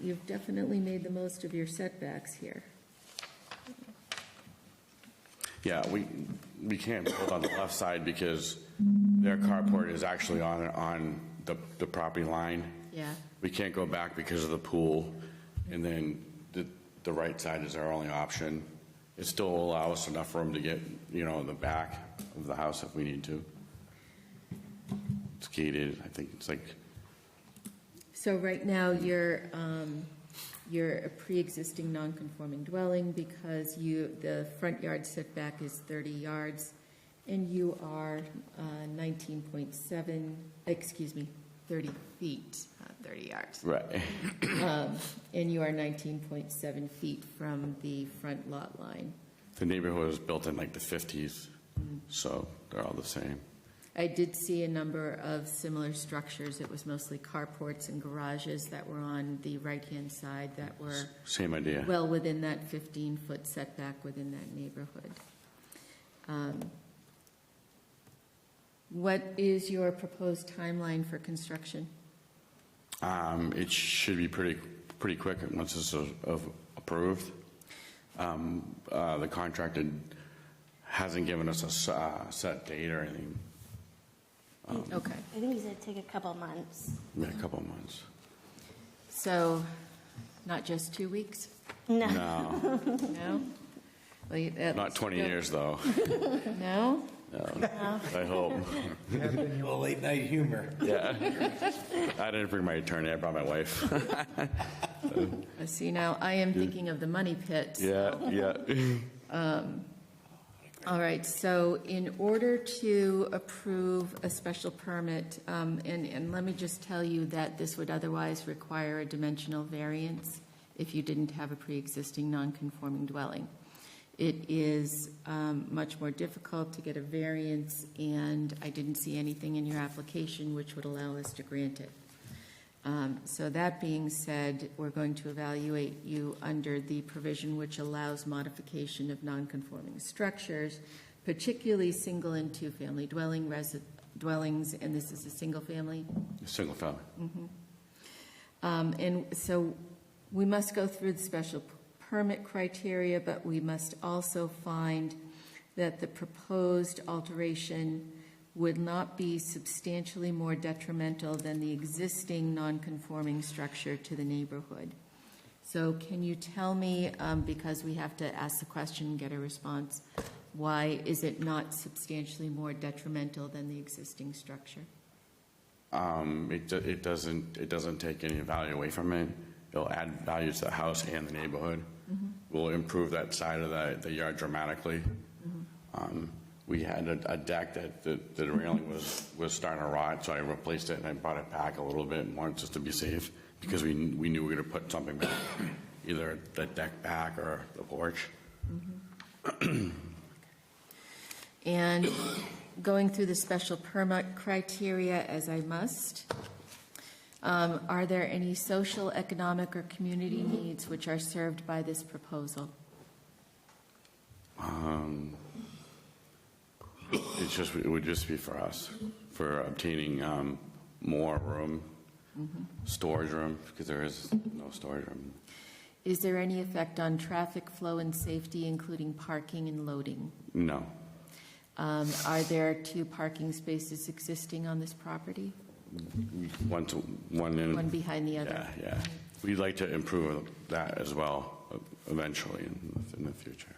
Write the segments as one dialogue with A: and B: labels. A: you've definitely made the most of your setbacks here.
B: Yeah, we, we can't build on the left side because their carport is actually on, on the, the property line.
A: Yeah.
B: We can't go back because of the pool, and then the, the right side is our only option. It still allows enough room to get, you know, in the back of the house if we need to. It's gated, I think it's like,
A: So right now, you're, um, you're a pre-existing non-conforming dwelling because you, the front yard setback is 30 yards, and you are uh, 19.7, excuse me, 30 feet, not 30 Uh, yards.
B: right,
A: Um, And you are 19.7 feet from the front lot line.
B: the neighborhood was built in like the 50s, so they're all the same.
A: I did see a number of similar structures. It was mostly carports and garages that were on the right-hand side that were
B: Same idea.
A: well within that 15-foot setback within that neighborhood. Um, What is your proposed timeline for construction?
B: Um, It should be pretty, pretty quick once this is of- approved. Um, uh, The contractor hasn't given us a s- uh, set date or anything,
A: Okay,
C: I think he said take a couple months.
B: in a couple of months.
A: so not just two weeks?
C: No.
B: No,
A: No? Well, you- uh, that
B: not
A: looks
B: 20
A: good.
B: years, though.
A: No?
B: I hope.
D: Well, late night humor.
B: Yeah. I didn't bring my attorney, I brought my wife.
A: Uh, See, now I am thinking of the money pit.
B: Yeah, yeah.
A: All right, so in order to approve a special permit, um, and, and let me just tell you that this would otherwise require a dimensional variance if you didn't have a pre-existing non-conforming dwelling. It is um, much more difficult to get a variance, and I didn't see anything in your application which would allow us to grant it. Um, So that being said, we're going to evaluate you under the provision which allows modification of nonconforming structures, particularly single and two-family dwelling resi- dwellings, and this is a single-family.
B: Single family.
A: Um, And so we must go through the special p- permit criteria, but we must also find that the proposed alteration would not be substantially more detrimental than the existing nonconforming structure to the neighborhood. So can you tell me, um, because we have to ask the question, and get a response, why is it not substantially more detrimental than the existing structure?
B: Um, It do- it doesn't, it doesn't take any value away from it. It'll add value to the house and the neighborhood. Will improve that side of the the yard dramatically. Um, We had a a deck that that that the railing was, was starting to rot, so I replaced it and I brought it back a little bit more just to be safe because we, kn- we knew we were going to put something back, either the deck back or the porch.
A: And going through the special permit criteria as I must, um, are there any social, economic, or community needs which are served by this proposal?
B: Um, It's just, it would just be for us, for obtaining um, more room, storage room, because there is no storage room.
A: Is there any effect on traffic flow and safety, including parking and loading?
B: No,
A: Um, Are there two parking spaces existing on this property?
B: one to, one in.
A: One behind the other?
B: Yeah, yeah. We'd like to improve that as well eventually in the- in the future.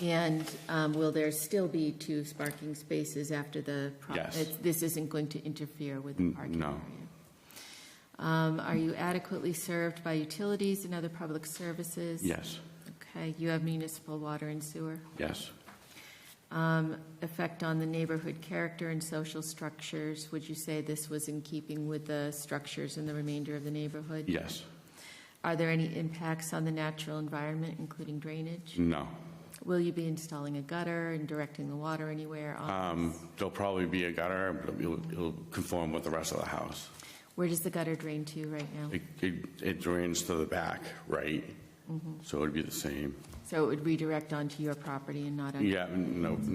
A: And um, will there still be two parking spaces after the? pro-
B: Yes.
A: it's- This isn't going to interfere with the
B: N-
A: parking
B: no.
A: area? Um, Are you adequately served by utilities and other public services?
B: Yes,
A: Okay, you have municipal water and sewer.
B: yes,
A: Um, Effect on the neighborhood character and social structures, would you say this was in keeping with the structures in the remainder of the neighborhood?
B: yes.
A: Are there any impacts on the natural environment, including drainage?
B: No.
A: Will you be installing a gutter and directing the water anywhere? on
B: Um, There'll probably be a gutter, but it'll it'll conform with the rest of the house.
A: Where does the gutter drain to right now?
B: It- It it drains to the back, right? So it'd be the same.
A: So it would redirect onto your property and not onto
B: Yeah, no,